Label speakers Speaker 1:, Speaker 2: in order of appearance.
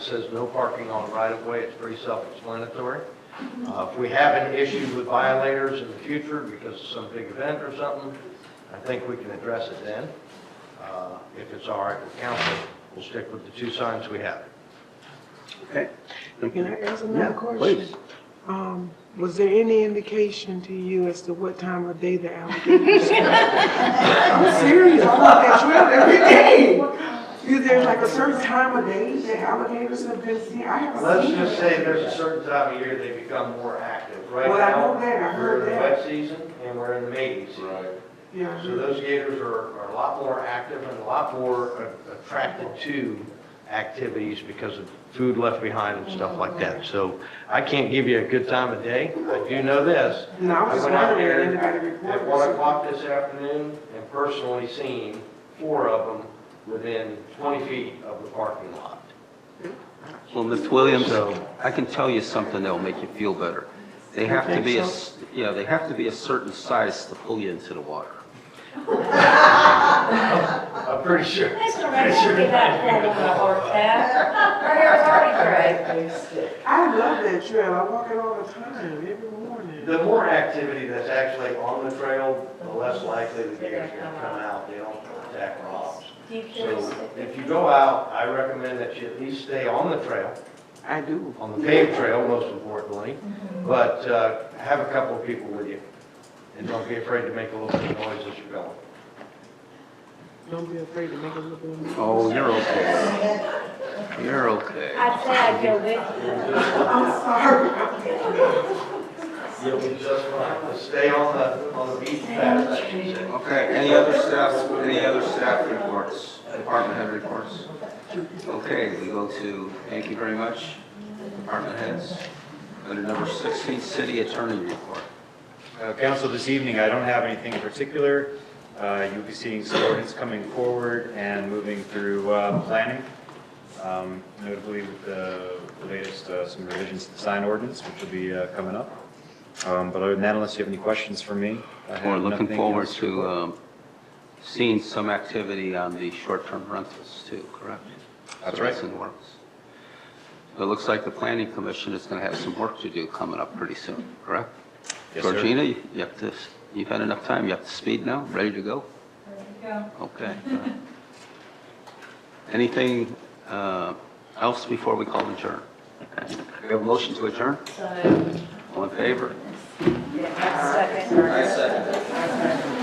Speaker 1: says no parking on right-of-way, it's pretty self-explanatory. Uh, If we have an issue with violators in the future because of some big event or something, I think we can address it then. Uh, If it's all right with council, we'll stick with the two signs we have.
Speaker 2: Okay.
Speaker 3: Can I ask
Speaker 2: Yeah,
Speaker 3: another question?
Speaker 2: please.
Speaker 3: Um, was there any indication to you as to what time of day the alligators? I'm serious, I walk that trail every day. Is there like a certain time of day that alligators have been seen? I haven't
Speaker 1: Let's
Speaker 3: seen.
Speaker 1: just
Speaker 3: them.
Speaker 1: say there's a certain time of year they become more active. Right
Speaker 3: Well, I
Speaker 1: now,
Speaker 3: know that, I heard
Speaker 1: We're in the
Speaker 3: that.
Speaker 1: wet season and we're in the mating season.
Speaker 3: Yeah.
Speaker 1: So those gators are, are a lot more active and a lot more a- attracted to activities because of food left behind and stuff like that. So I can't give you a good time of day. I do know this.
Speaker 3: No, I was just
Speaker 1: went out
Speaker 3: wondering if
Speaker 1: there
Speaker 3: anybody reported.
Speaker 1: At one o'clock this afternoon and personally seen four of them within twenty feet of the parking lot.
Speaker 2: Well, Ms. Williams,
Speaker 1: So-
Speaker 2: I can tell you something that'll make you feel better. They have to be, a s- yeah, they have to be a certain size to pull you into the water.
Speaker 1: I'm pretty sure.
Speaker 4: Mr. Mayor, we got that on the horse there. Priority three.
Speaker 3: I love that trail, I walk it all the time, every morning.
Speaker 1: The more activity that's actually on the trail, the less likely the gators are gonna come out. They don't attack rocks.
Speaker 4: Do you feel
Speaker 1: So
Speaker 4: sick?
Speaker 1: if you go out, I recommend that you at least stay on the trail,
Speaker 3: I do.
Speaker 1: on the paved trail most importantly, but uh, have a couple of people with you. And don't be afraid to make a little bit of noise as you're going.
Speaker 3: Don't be afraid to make a little bit of noise.
Speaker 2: Oh, you're okay. You're okay.
Speaker 4: I'd say I'd go with you.
Speaker 3: I'm sorry.
Speaker 1: You'll be just fine. Stay on the, on the beaten path, I should say.
Speaker 2: Okay, any other staff, any other staff reports, department head reports? Okay, we go to, thank you very much, department heads. Under number 16, city attorney report.
Speaker 5: Uh, Council, this evening, I don't have anything in particular. Uh, You'll be seeing some ordinance coming forward and moving through uh, planning, um, notably with the latest, uh, some revisions to the sign ordinance, which will be uh, coming up. Um, But other than that, unless you have any questions for me, I have
Speaker 2: We're looking
Speaker 5: nothing
Speaker 2: forward
Speaker 5: else
Speaker 2: to
Speaker 5: report.
Speaker 2: um, seeing some activity on the short-term rentals too, correct?
Speaker 5: That's
Speaker 2: So
Speaker 5: right.
Speaker 2: in the works. So It looks like the planning commission is going to have some work to do coming up pretty soon, correct?
Speaker 5: Yes, sir.
Speaker 2: Georgina, you you have to, you've had enough time, you have to speed now, ready to go? Okay. all right. Anything uh, else before we call adjourn? We have a motion to adjourn?
Speaker 4: So,
Speaker 2: All in favor?
Speaker 4: second.
Speaker 2: I second.